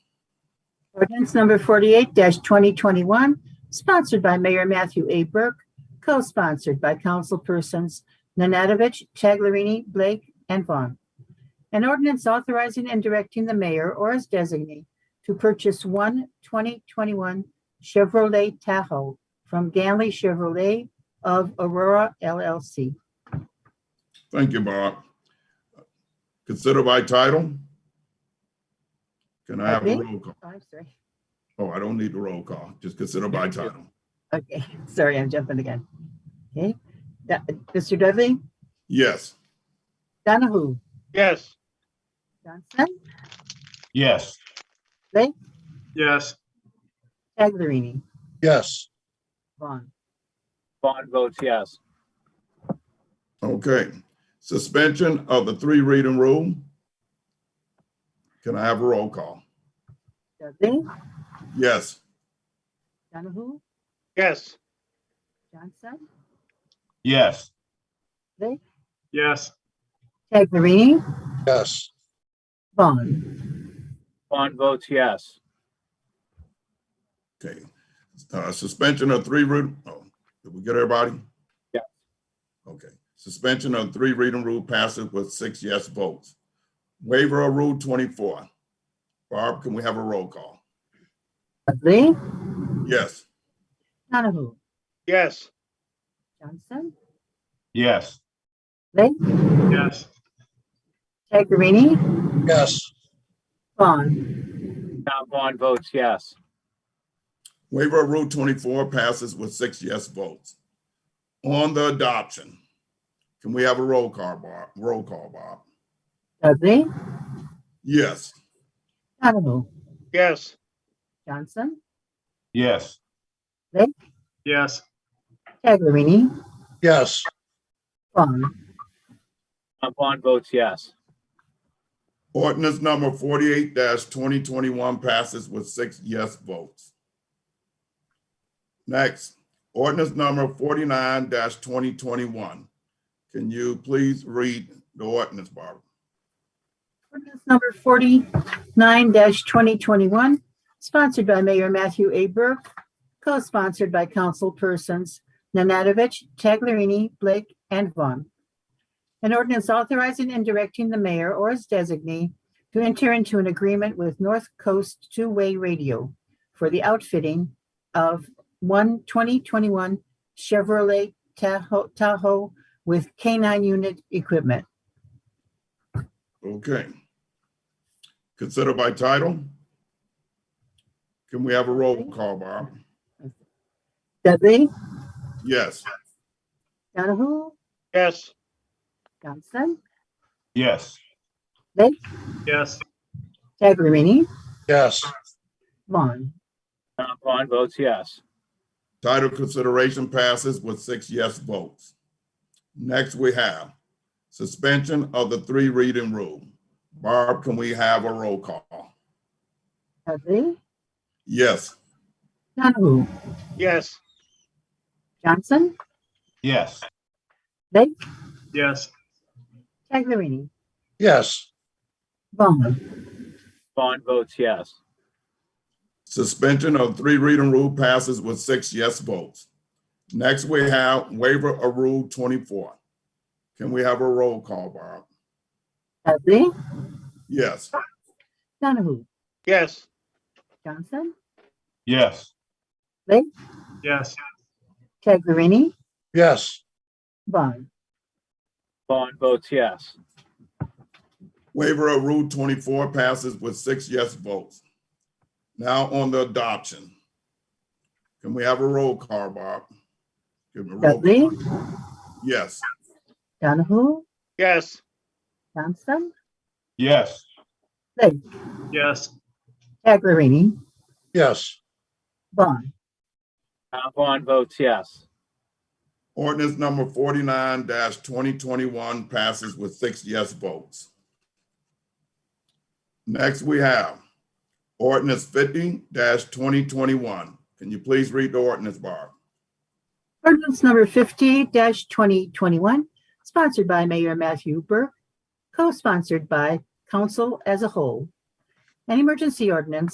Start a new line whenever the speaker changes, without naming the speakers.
Ordinance number 48-2021, sponsored by Mayor Matthew A. Burke, co-sponsored by councilpersons Nanadovich, Taglerini, Blake, and Vaughn. An ordinance authorizing and directing the mayor or his designee to purchase one 2021 Chevrolet Tahoe from Ganley Chevrolet of Aurora LLC.
Thank you, Bob. Consider by title? Can I have a
Okay.
roll call?
Oh, I'm sorry.
Oh, I don't need a roll call, just consider by title.
Okay, sorry, I'm jumping again. Okay, Da- Mr. Dudley,
Yes,
Donahue,
Yes.
Johnson,
Yes.
Yes.
Taglerini,
Yes.
Vaughn.
Bond votes yes.
okay. Suspension of the three reading rule? Can I have a roll call?
Dudley,
Yes,
Donahue,
Yes.
Johnson,
Yes.
Yes.
Taglerini,
Yes.
Vaughn.
Bond votes yes.
okay. Uh, suspension of three read, oh, did we get everybody?
Yeah.
Okay, suspension of three reading rule passes with six yes votes. Waiver of Rule twenty-four. Barb, can we have a roll call?
Dudley,
Yes,
Donahue,
Yes.
Johnson,
Yes.
Yes.
Taglerini,
Yes.
Vaughn.
Tom Bond votes yes.
waiver of Rule 24 passes with six yes votes. On the adoption, can we have a roll call, Bob? Roll call, Bob?
Dudley,
Yes,
Donahue,
Yes.
Johnson,
Yes.
Yes.
Taglerini,
Yes.
Vaughn.
Tom Bond votes yes.
ordinance number 48-2021 passes with six yes votes. Next, ordinance number 49-2021. Can you please read the ordinance, Barbara?
Ordinance number forty-nine twenty twenty-one, sponsored by Mayor Matthew A. Burke, co-sponsored by councilpersons Nanadovich, Taglerini, Blake, and Vaughn. An ordinance authorizing and directing the mayor or his designee to enter into an agreement with North Coast Two-Way Radio for the outfitting of one 2021 Chevrolet Tahoe, Tahoe with K-9 unit equipment.
Okay. Consider by title? Can we have a roll call, Bob?
Dudley,
Yes.
Donahue,
Yes.
Johnson,
Yes.
Yes.
Taglerini,
Yes.
Vaughn.
Tom Bond votes yes.
Title consideration passes with six yes votes. Next, we have suspension of the three reading rule. Barb, can we have a roll call?
Dudley,
Yes.
Donahue,
Yes.
Johnson,
Yes.
Yes.
Taglerini,
Yes.
Vaughn.
Bond votes yes.
Suspension of three reading rule passes with six yes votes. Next, we have waiver of Rule 24. Can we have a roll call, Barb?
Dudley,
Yes.
Donahue,
Yes.
Johnson,
Yes.
Yes.
Taglerini,
Yes.
Vaughn.
Bond votes yes.
Waiver of Rule 24 passes with six yes votes. Now on the adoption. Can we have a roll call, Bob? Give me a roll.
Dudley,
Yes,
Donahue,
Yes.
Johnson,
Yes.
Yes.
Taglerini,
Yes.
Vaughn.
Tom Bond votes yes.
ordinance number 49-2021 passes with six yes votes. Next, we have ordinance 50-2021. Can you please read the ordinance, Bob?
Ordinance number fifty twenty twenty-one, sponsored by Mayor Matthew Burke, co-sponsored by council as a whole. An emergency ordinance